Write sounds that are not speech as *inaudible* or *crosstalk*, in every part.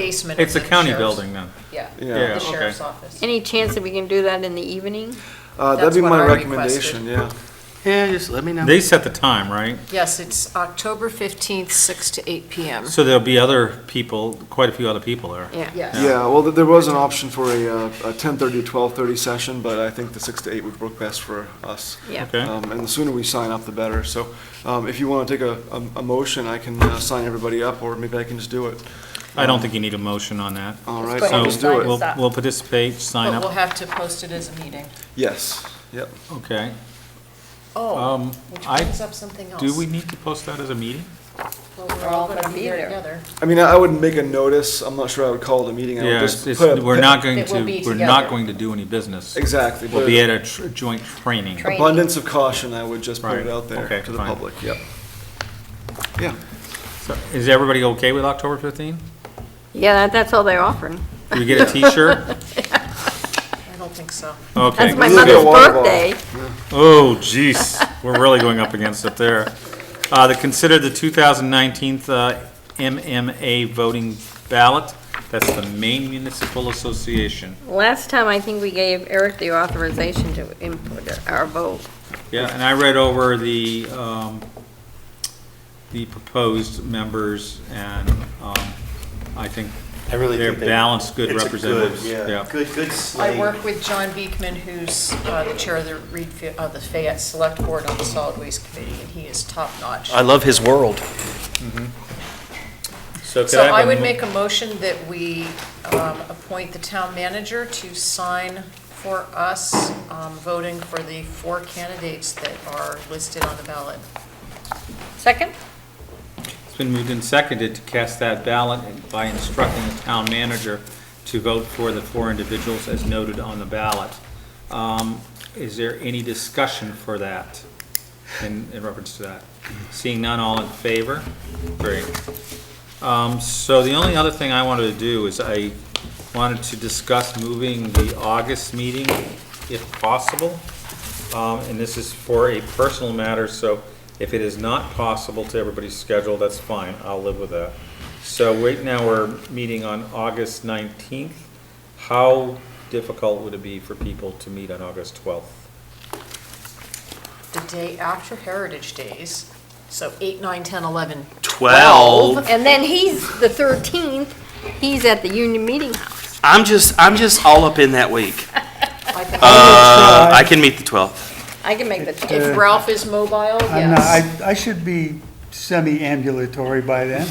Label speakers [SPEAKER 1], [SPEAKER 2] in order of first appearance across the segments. [SPEAKER 1] basement. of
[SPEAKER 2] It's a
[SPEAKER 1] the
[SPEAKER 2] county
[SPEAKER 1] sheriff's-
[SPEAKER 2] building then.
[SPEAKER 1] Yeah,
[SPEAKER 2] Yeah,
[SPEAKER 1] the
[SPEAKER 2] okay.
[SPEAKER 1] sheriff's office.
[SPEAKER 3] Any chance that we can do that in the evening?
[SPEAKER 4] Uh, that'd
[SPEAKER 1] That's
[SPEAKER 4] be
[SPEAKER 1] what
[SPEAKER 4] my
[SPEAKER 1] I
[SPEAKER 4] recommendation, yeah.
[SPEAKER 5] Yeah, just let me know.
[SPEAKER 2] They set the time, right?
[SPEAKER 1] Yes, it's October 15th, 6 to 8 PM.
[SPEAKER 2] So there'll be other people, quite a few other people there.
[SPEAKER 1] Yes.
[SPEAKER 4] Yeah, well, th- there was an option for a, uh, a ten-thirty to twelve-thirty session, but I think the six to eight would work best for us.
[SPEAKER 3] Yeah.
[SPEAKER 2] Okay.
[SPEAKER 4] Um, and the sooner we sign up, the better. So, um, if you wanna take a, a, a motion, I can, uh, sign everybody up, or maybe I can just do it.
[SPEAKER 2] I don't think you need a motion on that.
[SPEAKER 4] All
[SPEAKER 1] Just
[SPEAKER 4] right,
[SPEAKER 1] go ahead
[SPEAKER 2] So
[SPEAKER 4] I'll
[SPEAKER 1] and
[SPEAKER 4] just do
[SPEAKER 1] sign
[SPEAKER 4] it.
[SPEAKER 2] we'll,
[SPEAKER 1] us up.
[SPEAKER 2] we'll participate, sign
[SPEAKER 1] But we'll
[SPEAKER 2] up,
[SPEAKER 1] have to post it as a meeting.
[SPEAKER 4] Yes, yep.
[SPEAKER 2] okay.
[SPEAKER 1] Oh,
[SPEAKER 2] Um,
[SPEAKER 1] which
[SPEAKER 2] I,
[SPEAKER 1] brings up something else.
[SPEAKER 2] do we need to post that as a meeting?
[SPEAKER 1] Well, We're all gonna be there together.
[SPEAKER 4] I mean, I I wouldn't make a notice. I'm not sure I would call it a meeting. I would
[SPEAKER 2] Yeah,
[SPEAKER 4] just
[SPEAKER 2] it's, it's-
[SPEAKER 4] put a-
[SPEAKER 2] we're not going
[SPEAKER 1] It will
[SPEAKER 2] to,
[SPEAKER 1] be
[SPEAKER 2] we're
[SPEAKER 1] together.
[SPEAKER 2] not going to do any business.
[SPEAKER 4] Exactly.
[SPEAKER 2] We'll
[SPEAKER 4] but
[SPEAKER 2] be at a tr- joint training.
[SPEAKER 3] Train-
[SPEAKER 4] Abundance of caution, I would just put it
[SPEAKER 2] Right,
[SPEAKER 4] out there
[SPEAKER 2] okay,
[SPEAKER 4] to the
[SPEAKER 2] fine.
[SPEAKER 4] public, yep. Yeah.
[SPEAKER 2] So Is everybody okay with October 15?
[SPEAKER 3] Yeah, that- that's all they're offering.
[SPEAKER 2] Do
[SPEAKER 1] *laughs*
[SPEAKER 2] we get a T-shirt?
[SPEAKER 1] I don't think so.
[SPEAKER 2] Okay.
[SPEAKER 3] That's my
[SPEAKER 4] We'll
[SPEAKER 3] mother's
[SPEAKER 4] get a water bottle.
[SPEAKER 3] birthday.
[SPEAKER 2] Oh, jeez, we're really going up against it there. Uh, to consider the 2019 uh, MMA voting ballot, that's the Maine Municipal Association.
[SPEAKER 3] Last time, I think we gave Eric the authorization to input our vote.
[SPEAKER 2] Yeah, and I read over the, um, the proposed members, and, um, I think
[SPEAKER 5] I really
[SPEAKER 2] they're
[SPEAKER 5] think they-
[SPEAKER 2] balanced, good
[SPEAKER 5] it's a
[SPEAKER 2] representatives.
[SPEAKER 5] Yeah, good, good
[SPEAKER 1] I
[SPEAKER 5] slate.
[SPEAKER 1] work with John Beekman, who's uh, the chair of the Reed, Fa- uh, the Fayette Select Board on the Solid Waste Committee, and he is top-notch.
[SPEAKER 5] I love his world.
[SPEAKER 2] Mm-hmm. So could
[SPEAKER 1] So
[SPEAKER 2] I have
[SPEAKER 1] I
[SPEAKER 2] a
[SPEAKER 1] would
[SPEAKER 2] mo-
[SPEAKER 1] make a motion that we um, appoint the town manager to sign for us, um, voting for the four candidates that are listed on the ballot.
[SPEAKER 3] Second?
[SPEAKER 2] It's been moved and seconded to cast that ballot by instructing the town manager to vote for the four individuals as noted on the ballot. Um, Is there any discussion for that, in, in reference to that? Seeing none, all in favor? Great. Um, So the only other thing I wanted to do is I wanted to discuss moving the August meeting, if possible. Um, And this is for a personal matter, so if it is not possible to everybody's schedule, that's fine, I'll live with that. So right now, we're meeting on August 19th. How difficult would it be for people to meet on August 12th?
[SPEAKER 1] The day after Heritage Days, so 8, 9, 10, 11.
[SPEAKER 5] Twelve.
[SPEAKER 3] And then he's, the 13th, he's at the union meeting house.
[SPEAKER 5] I'm just, I'm just all up in that week.
[SPEAKER 1] I think
[SPEAKER 5] Uh, I can meet the *laughs* twelfth.
[SPEAKER 3] I can make the,
[SPEAKER 1] If Ralph is mobile,
[SPEAKER 6] Uh, I'm not,
[SPEAKER 1] yes.
[SPEAKER 6] I, I should be semi-ambulatory by then.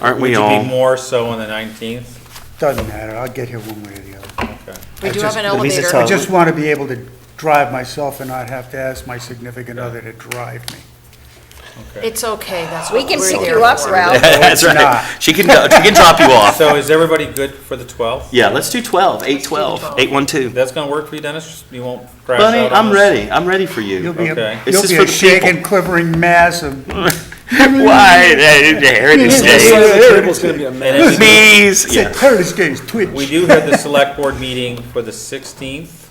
[SPEAKER 5] Aren't we
[SPEAKER 2] Would
[SPEAKER 5] all?
[SPEAKER 2] you be more so on the 19th?
[SPEAKER 6] Doesn't matter, I'll get here one way or the other.
[SPEAKER 2] Okay.
[SPEAKER 1] We
[SPEAKER 6] I
[SPEAKER 1] do have
[SPEAKER 6] just-
[SPEAKER 1] an
[SPEAKER 5] at least it's
[SPEAKER 1] elevator.
[SPEAKER 6] I
[SPEAKER 5] held.
[SPEAKER 6] just want to be able to drive myself and not have to ask my significant other to drive me.
[SPEAKER 1] It's okay, that's
[SPEAKER 3] we
[SPEAKER 1] what
[SPEAKER 3] can
[SPEAKER 1] we're
[SPEAKER 3] pick
[SPEAKER 1] there
[SPEAKER 3] you up,
[SPEAKER 1] for.
[SPEAKER 3] Ralph.
[SPEAKER 5] *laughs* That's
[SPEAKER 6] not.
[SPEAKER 5] right. She can, go- she can drop you *laughs* off.
[SPEAKER 2] So is everybody good for the 12th?
[SPEAKER 5] Yeah, let's do twelve, eight
[SPEAKER 1] do
[SPEAKER 5] twelve,
[SPEAKER 1] 12.
[SPEAKER 5] eight one two.
[SPEAKER 2] That's gonna work for you, Dennis? You won't crash out on
[SPEAKER 5] Bunny, I'm
[SPEAKER 2] us?
[SPEAKER 5] ready. I'm ready for *laughs*
[SPEAKER 6] You'll
[SPEAKER 5] you.
[SPEAKER 6] be,
[SPEAKER 2] Okay.
[SPEAKER 6] a-
[SPEAKER 5] This
[SPEAKER 6] you'll
[SPEAKER 5] is
[SPEAKER 6] be
[SPEAKER 5] for
[SPEAKER 6] a
[SPEAKER 5] the people.
[SPEAKER 6] shaking, quivering mass of,
[SPEAKER 5] Why? eh, Heritage *laughs* Day.
[SPEAKER 4] It's gonna be a mess.
[SPEAKER 2] And if you-
[SPEAKER 5] Please.
[SPEAKER 6] *laughs*
[SPEAKER 5] Yeah,
[SPEAKER 6] Curtis Gaines,
[SPEAKER 2] We
[SPEAKER 6] twitch.
[SPEAKER 2] do have the select board meeting for the 16th.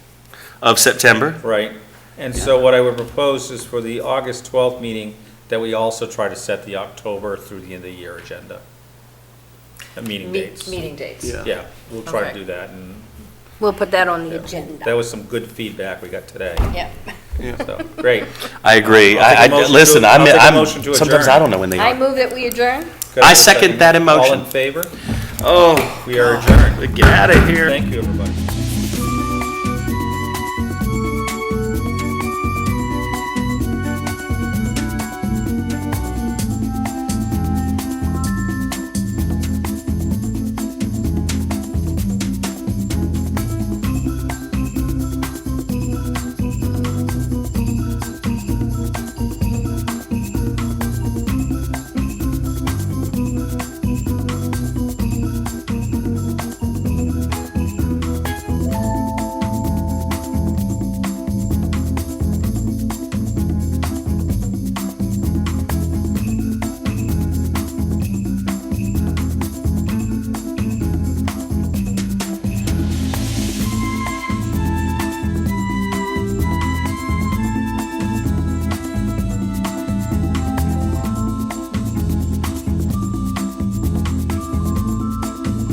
[SPEAKER 5] of September.
[SPEAKER 2] Right, and so what I would propose is for the August twelfth meeting, that we also try to set the October through the end of the year agenda. Uh, Meeting
[SPEAKER 1] Me-
[SPEAKER 2] dates.
[SPEAKER 1] Meeting dates.
[SPEAKER 4] Yeah.
[SPEAKER 2] Yeah, we'll try to
[SPEAKER 1] Okay.
[SPEAKER 2] do that, and
[SPEAKER 3] we'll put that on the
[SPEAKER 2] that
[SPEAKER 3] agenda.
[SPEAKER 2] was some good feedback we got today,
[SPEAKER 3] Yeah.
[SPEAKER 2] so, great.
[SPEAKER 5] I
[SPEAKER 2] I'll take
[SPEAKER 5] agree.
[SPEAKER 2] a
[SPEAKER 5] I, I,
[SPEAKER 2] motion to-
[SPEAKER 5] listen,
[SPEAKER 2] I'll
[SPEAKER 5] I'm,
[SPEAKER 2] take a
[SPEAKER 5] I'm,
[SPEAKER 2] motion to
[SPEAKER 5] sometimes
[SPEAKER 2] adjourn.
[SPEAKER 5] I don't know when they
[SPEAKER 3] I
[SPEAKER 5] are.
[SPEAKER 3] move that we adjourn?
[SPEAKER 2] Could have a
[SPEAKER 5] second that
[SPEAKER 2] All in
[SPEAKER 5] emotion.
[SPEAKER 2] favor?
[SPEAKER 5] Oh,
[SPEAKER 2] We are adjourned.
[SPEAKER 5] get out of here.
[SPEAKER 2] Thank you, everybody.